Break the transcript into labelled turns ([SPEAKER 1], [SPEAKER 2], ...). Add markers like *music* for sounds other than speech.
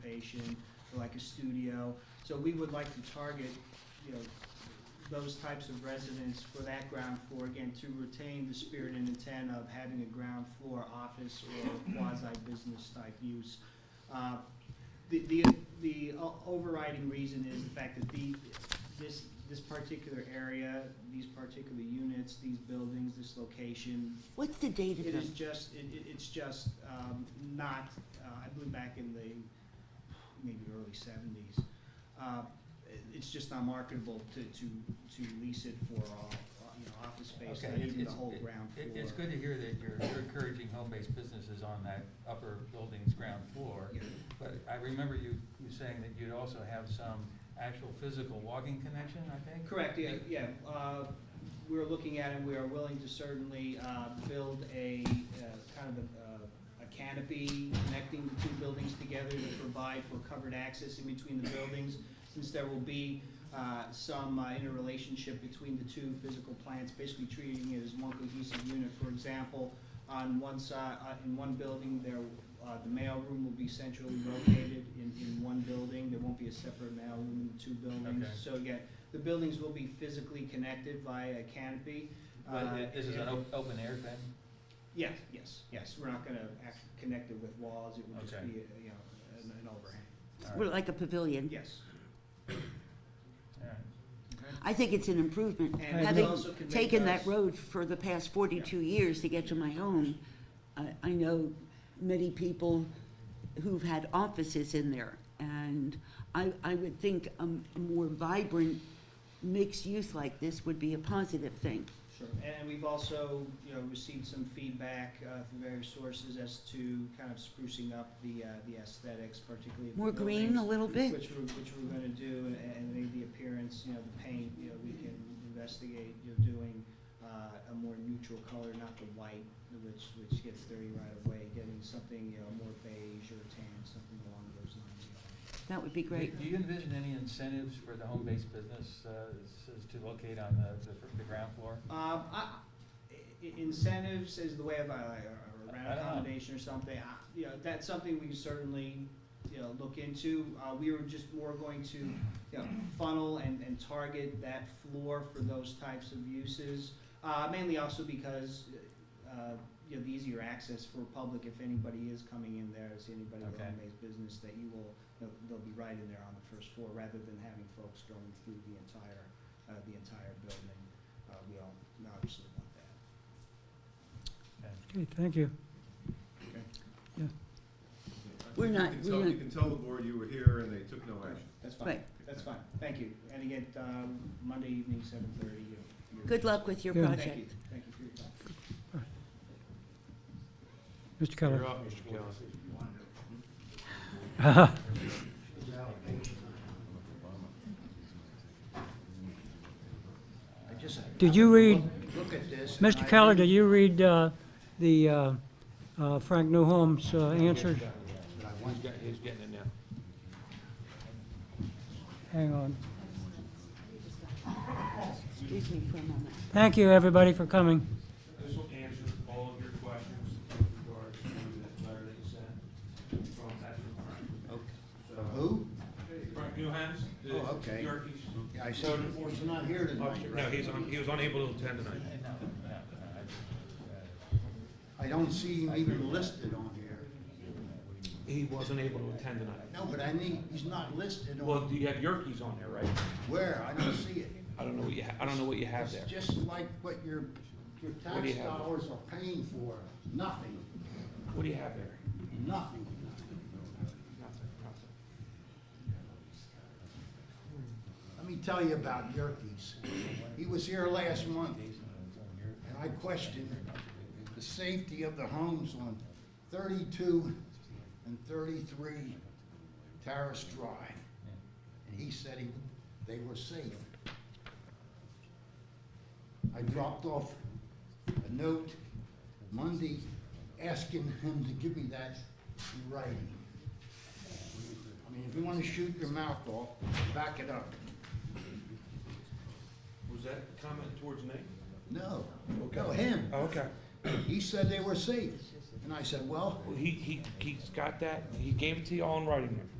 [SPEAKER 1] occupation, or like a studio. So we would like to target, you know, those types of residents for that ground floor, again, to retain the spirit and intent of having a ground floor office or quasi-business type use. Uh, The, the, the o- overriding reason is the fact that the, this, this particular area, these particular units, these buildings, this location,
[SPEAKER 2] What's the date of
[SPEAKER 1] it is
[SPEAKER 2] them?
[SPEAKER 1] just, it, it- it's just um, not, uh, I believe back in the maybe early seventies, uh, it's just not marketable to, to, to lease it for, all, uh, you know, office space,
[SPEAKER 3] Okay,
[SPEAKER 1] not
[SPEAKER 3] it's-
[SPEAKER 1] even the
[SPEAKER 3] it's-
[SPEAKER 1] whole
[SPEAKER 3] it-
[SPEAKER 1] ground floor.
[SPEAKER 3] it- It's good to hear that you're, you're encouraging home-based businesses on that upper building's ground floor.
[SPEAKER 1] Yeah.
[SPEAKER 3] But I remember you, you saying that you'd also have some actual physical walking connection, I think?
[SPEAKER 1] Correct, yeah, yeah. Uh, We're looking at it, we are willing to certainly uh, build a, uh, kind of a, uh, a canopy connecting the two buildings together to provide for covered access in between the buildings, since there will be uh, some uh, interrelationship between the two physical plants, basically treating it as one cohesive unit. For example, on one side, uh, in one building, there, uh, the mailroom will be centrally located in, in one building. There won't be a separate mailroom in the two buildings.
[SPEAKER 3] Okay.
[SPEAKER 1] So again, the buildings will be physically connected via a canopy.
[SPEAKER 3] But
[SPEAKER 1] Uh,
[SPEAKER 3] it- this is an op- open air thing?
[SPEAKER 1] Yes, yes, yes, we're not gonna act, connect it with walls, it will just
[SPEAKER 3] Okay.
[SPEAKER 1] be, a- you know, an, an overhang,
[SPEAKER 3] All
[SPEAKER 2] Well,
[SPEAKER 3] right,
[SPEAKER 2] Like a pavilion?
[SPEAKER 1] yes.
[SPEAKER 3] all right.
[SPEAKER 2] I think it's an improvement.
[SPEAKER 1] And
[SPEAKER 3] we
[SPEAKER 2] Having
[SPEAKER 1] also can make
[SPEAKER 2] taken that
[SPEAKER 1] those-
[SPEAKER 2] road for the past forty-two years to get to my home, I, I know many people who've had offices in there. And I, I would think a m- a more vibrant mixed use like this would be a positive thing.
[SPEAKER 1] Sure, and we've also, you know, received some feedback, uh, from various sources as to kind of sprucing up the, uh, the aesthetics, particularly of the
[SPEAKER 2] More green a
[SPEAKER 1] buildings,
[SPEAKER 2] little bit.
[SPEAKER 1] Which we're, which we're gonna do, and, and maybe the appearance, you know, the paint, you know, we can investigate, you know, doing, uh, a more neutral color, not the white, which, which gets dirty right away, getting something, you know, more beige or tan, something along those lines.
[SPEAKER 2] That would be great.
[SPEAKER 3] Do do you envision any incentives for the home-based business uh, s- s- to locate on the, the fir- the ground floor?
[SPEAKER 1] Um, I, i- incentives is the way of, uh, like, or
[SPEAKER 3] I
[SPEAKER 1] rent
[SPEAKER 3] don't know.
[SPEAKER 1] accommodation or something, I, you know, that's something we can certainly, you know, look into. Uh, we were just more going to, you know, funnel and, and target that floor for those types of uses. Uh, mainly also because, uh, you know, the easier access for public, if anybody is coming in there, is anybody with
[SPEAKER 3] Okay.
[SPEAKER 1] home-based business, that you will, they'll, they'll be right in there on the first floor, rather than having folks going through the entire, uh, the entire building. Uh, we all obviously want that.
[SPEAKER 4] Okay, thank you.
[SPEAKER 2] We're not- we're
[SPEAKER 5] You can tell-
[SPEAKER 2] not-
[SPEAKER 5] You can tell the board you were here and they took no action.
[SPEAKER 1] That's fine,
[SPEAKER 2] Right.
[SPEAKER 1] that's fine, thank you. And again, um, Monday evening, seven thirty, you're.
[SPEAKER 2] Good luck with your
[SPEAKER 4] Yeah.
[SPEAKER 2] project.
[SPEAKER 1] Thank you, thank you for your time.
[SPEAKER 4] Mr. Keller.
[SPEAKER 5] up, Mr. Kelly.
[SPEAKER 4] *laughs* Did you read,
[SPEAKER 6] look at this. and I
[SPEAKER 4] Mr. Keller,
[SPEAKER 6] think-
[SPEAKER 4] did you read uh, the uh, uh, Frank Newholm's uh, answers?
[SPEAKER 5] He's getting it now.
[SPEAKER 4] Hang on.
[SPEAKER 2] Excuse me for a moment.
[SPEAKER 4] Thank you, everybody, for coming.
[SPEAKER 7] This will answer all of your questions in regards to that letter that you sent from that
[SPEAKER 6] Okay.
[SPEAKER 7] So,
[SPEAKER 6] Who?
[SPEAKER 7] Frank Newhams, the
[SPEAKER 6] Oh, okay.
[SPEAKER 7] Yorkies.
[SPEAKER 6] I see he's not here tonight.
[SPEAKER 7] oh, No, he's on, he was unable to attend tonight.
[SPEAKER 6] I don't see him even listed on here.
[SPEAKER 7] He wasn't able to attend tonight.
[SPEAKER 6] No, but I need, he's not listed
[SPEAKER 7] Well,
[SPEAKER 6] on
[SPEAKER 7] do you have Yerkes on there, right?
[SPEAKER 6] where, I don't see it.
[SPEAKER 7] I don't know what you, ha- I don't know what you have
[SPEAKER 6] It's
[SPEAKER 7] there.
[SPEAKER 6] just like what your, your
[SPEAKER 7] What do you
[SPEAKER 6] tax
[SPEAKER 7] have?
[SPEAKER 6] dollars are paying for, nothing,
[SPEAKER 7] What do you have there? Nothing,
[SPEAKER 6] nothing.
[SPEAKER 7] nothing.
[SPEAKER 6] Let me tell you about Yerkes. He was here last month, and I questioned the safety of the homes on thirty-two and thirty-three Terrace Drive. And he said he, they were safe. I dropped off a note Monday asking him to give me that in writing. I mean, if you wanna shoot your mouth off, back it up.
[SPEAKER 7] Was that comment towards me? Oh,
[SPEAKER 6] No, no, him.
[SPEAKER 7] Okay.
[SPEAKER 6] He said they were safe. And I said, well,
[SPEAKER 7] He, he, he's got that, he gave it to you all in writing there.